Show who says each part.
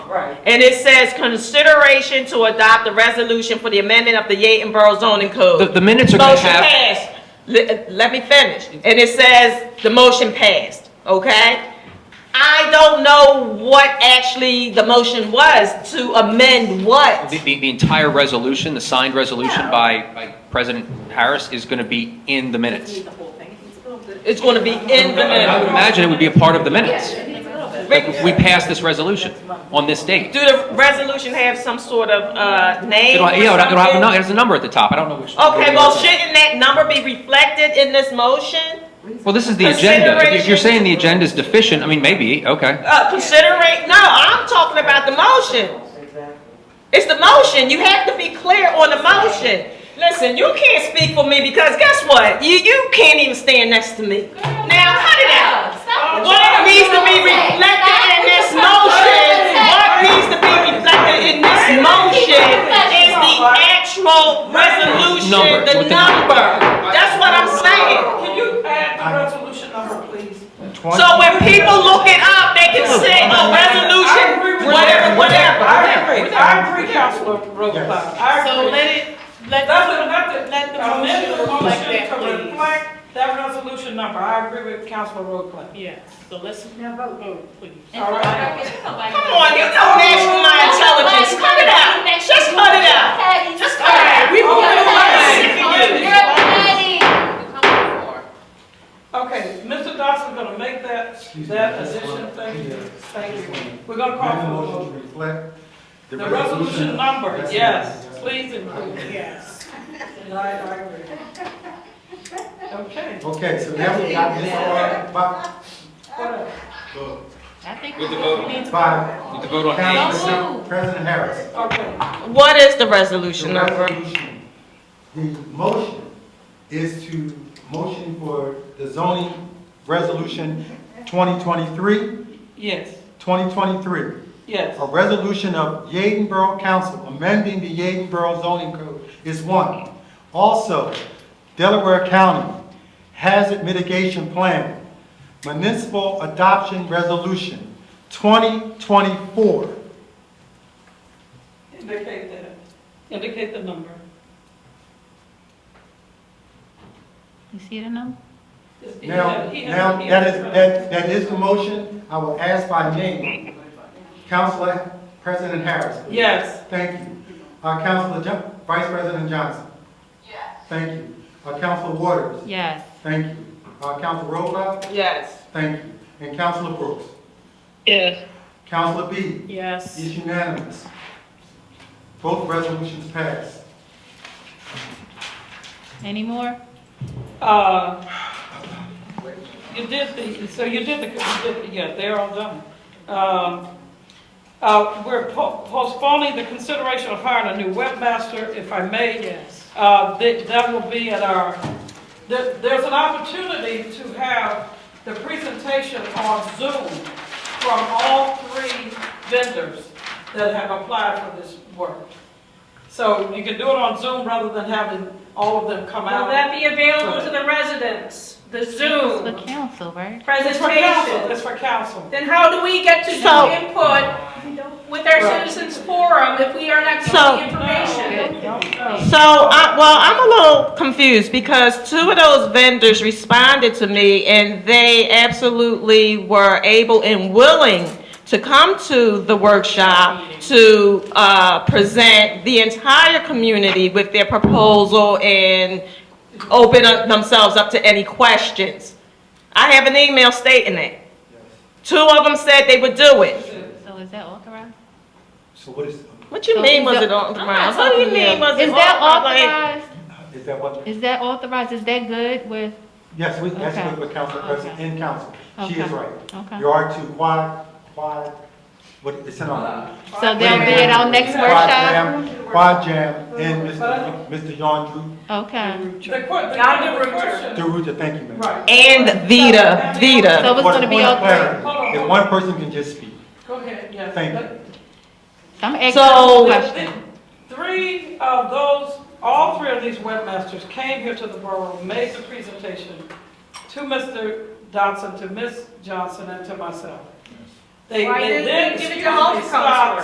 Speaker 1: Right.
Speaker 2: And it says consideration to adopt a resolution for the amendment of the Yaden Borough zoning
Speaker 3: The,
Speaker 2: code.
Speaker 3: the minutes are gonna
Speaker 2: Motion
Speaker 3: have,
Speaker 2: passed. Let, let me finish. And it says the motion passed, okay? I don't know what actually the motion was to amend what.
Speaker 3: the, the, the entire resolution, the signed resolution
Speaker 2: Yeah.
Speaker 3: by, by President Harris is gonna be in the minutes.
Speaker 1: Need the whole thing. It's a little bit-
Speaker 2: It's gonna be in the
Speaker 3: And I would
Speaker 2: minute.
Speaker 3: imagine it would be a part of the minutes.
Speaker 1: It needs a little bit.
Speaker 3: Like, We passed this resolution on this date.
Speaker 2: Do the resolution have some sort of, uh, name
Speaker 3: It'll,
Speaker 2: or
Speaker 3: you know, it'll have a
Speaker 2: something?
Speaker 3: number, there's a number at the top, I don't know which.
Speaker 2: Okay, well, shouldn't that number be reflected in this motion?
Speaker 3: Well, this is the agenda. If you- If you're
Speaker 2: Consideration-
Speaker 3: saying the agenda is deficient, I mean, maybe, okay.
Speaker 2: Uh, considering, no, I'm talking about the motion. It's the motion, you have to be clear on the motion. Listen, you can't speak for me because guess what? You, you can't even stand next to me. Now, cut it out.
Speaker 1: Uh,
Speaker 2: What needs to be reflected in this motion, what needs to be reflected in this motion is the actual resolution,
Speaker 3: Number,
Speaker 2: the
Speaker 3: what the-
Speaker 2: number. That's what I'm saying.
Speaker 1: Can you add the resolution number, please?
Speaker 2: So when people look it up, they can say a resolution,
Speaker 1: I agree with
Speaker 2: whatever,
Speaker 1: that.
Speaker 2: whatever.
Speaker 1: I agree, I agree, Councilor Rosenbaum, I
Speaker 4: So
Speaker 1: agree.
Speaker 4: let it, let
Speaker 1: That's
Speaker 4: the,
Speaker 1: what, let the,
Speaker 4: let the
Speaker 1: amend
Speaker 4: motion
Speaker 1: the
Speaker 4: reflect
Speaker 1: motion
Speaker 4: that,
Speaker 1: to
Speaker 4: please.
Speaker 1: reflect that resolution number, I agree with Councilor Rosenbaum.
Speaker 4: Yeah, so let's vote, please.
Speaker 1: All right.
Speaker 2: Come on, you don't match with my intelligence. Cut it out. Just cut it out. Just cut it out.
Speaker 1: We moving
Speaker 5: You're
Speaker 1: on.
Speaker 5: petty.
Speaker 1: Okay, Mr. Dawson's gonna make that, that addition, thank you, thank you. We're gonna
Speaker 6: Amend
Speaker 1: call for
Speaker 6: the
Speaker 1: a vote.
Speaker 6: motion to reflect
Speaker 1: The resolution number, yes, please include it.
Speaker 4: Yes.
Speaker 1: And I, I agree. Okay.
Speaker 6: Okay, so now we got this order by,
Speaker 5: I think
Speaker 7: With the
Speaker 5: we
Speaker 7: vote.
Speaker 5: need to.
Speaker 6: by
Speaker 3: The vote
Speaker 6: Councilman, President Harris.
Speaker 1: Okay.
Speaker 2: What is the
Speaker 6: The
Speaker 2: resolution
Speaker 6: resolution, the motion is to motion for the zoning resolution 2023,
Speaker 1: Yes,
Speaker 6: 2023.
Speaker 1: yes.
Speaker 6: A resolution of Yaden Borough Council amending the Yaden Borough zoning code is one. Also, Delaware County Hazard Mitigation Plan Municipal Adoption Resolution 2024.
Speaker 1: Indicate that. Indicate the number.
Speaker 5: You see the number?
Speaker 1: It's- he
Speaker 6: Now,
Speaker 1: has- he has-
Speaker 6: now,
Speaker 1: he
Speaker 6: that
Speaker 1: has-
Speaker 6: is, that, that is the motion. I will ask by name. Councilor President Harris. please.
Speaker 1: Yes,
Speaker 6: Thank you. Uh, Councilor Jo- Vice President Johnson. Yes. Thank you. Uh, Councilor Waters.
Speaker 5: Yes.
Speaker 6: Thank you. Uh, Councilor Roelback?
Speaker 2: Yes.
Speaker 6: Thank you. And Councilor Brooks?
Speaker 4: Yes.
Speaker 6: Councilor B?
Speaker 4: Yes.
Speaker 6: It's unanimous. Both resolutions passed.
Speaker 5: Any more?
Speaker 1: uh, you did the, so you did the, you did the- yeah, they're all done. Um, uh, we're po- postponing the consideration of hiring a new webmaster, if I may.
Speaker 4: Yes.
Speaker 1: Uh, that, that will be at our, there, there's an opportunity to have the presentation on Zoom from all three vendors that have applied for this work. So you can do it on Zoom rather than having all of them come
Speaker 8: Will
Speaker 1: out.
Speaker 8: that be available to the residents, the
Speaker 5: The
Speaker 8: Zoom
Speaker 5: council, right?
Speaker 1: It's for council,
Speaker 8: presentation?
Speaker 1: it's for council.
Speaker 8: Then how do we get to
Speaker 2: So-
Speaker 8: do input with our citizens forum if we are not
Speaker 2: So-
Speaker 8: getting information?
Speaker 1: No, no, no.
Speaker 2: So, I, well, I'm a little confused because two of those vendors responded to me and they absolutely were able and willing to come to the workshop to, uh, present the entire community with their proposal and open up themselves up to any questions. I have an email stating that. Two of them said they would do it.
Speaker 5: So is that authorized?
Speaker 6: So what is,
Speaker 2: What you mean was it on the ground? What do you mean was it
Speaker 5: Is that
Speaker 2: on? Like,
Speaker 5: authorized?
Speaker 6: is that what?
Speaker 5: Is that authorized? Is that good with,
Speaker 6: Yes, we, that's
Speaker 5: Okay.
Speaker 6: good with Council President and Council. She is
Speaker 5: Okay.
Speaker 6: right.
Speaker 5: okay.
Speaker 6: You are to quad, quad, what, it's in our.
Speaker 5: So they'll be at our next
Speaker 6: Quad
Speaker 5: workshop?
Speaker 6: jam- Quad jam and Mr. Mr. John
Speaker 5: Okay.
Speaker 1: The que- the-
Speaker 8: Not the
Speaker 1: the
Speaker 6: Drew,
Speaker 1: question.
Speaker 6: Deruta, thank you, ma'am.
Speaker 1: Right.
Speaker 2: And Vita, Vita.
Speaker 5: So it's
Speaker 6: Point-
Speaker 5: gonna be
Speaker 6: point of
Speaker 5: okay.
Speaker 6: clarity.
Speaker 1: Hold on,
Speaker 6: If
Speaker 1: hold
Speaker 6: one person can just speak.
Speaker 1: Go ahead, yes.
Speaker 6: Thank you.
Speaker 5: I'm asking
Speaker 2: So-
Speaker 5: a
Speaker 1: The-
Speaker 5: question.
Speaker 1: the- Three of those, all three of these webmasters came here to the borough, made the presentation to Mr. Dodson, to Ms. Johnson, and to myself. They
Speaker 8: Why
Speaker 1: they
Speaker 8: didn't
Speaker 1: then,
Speaker 8: you give it
Speaker 1: excuse
Speaker 8: to all the
Speaker 1: me, stopped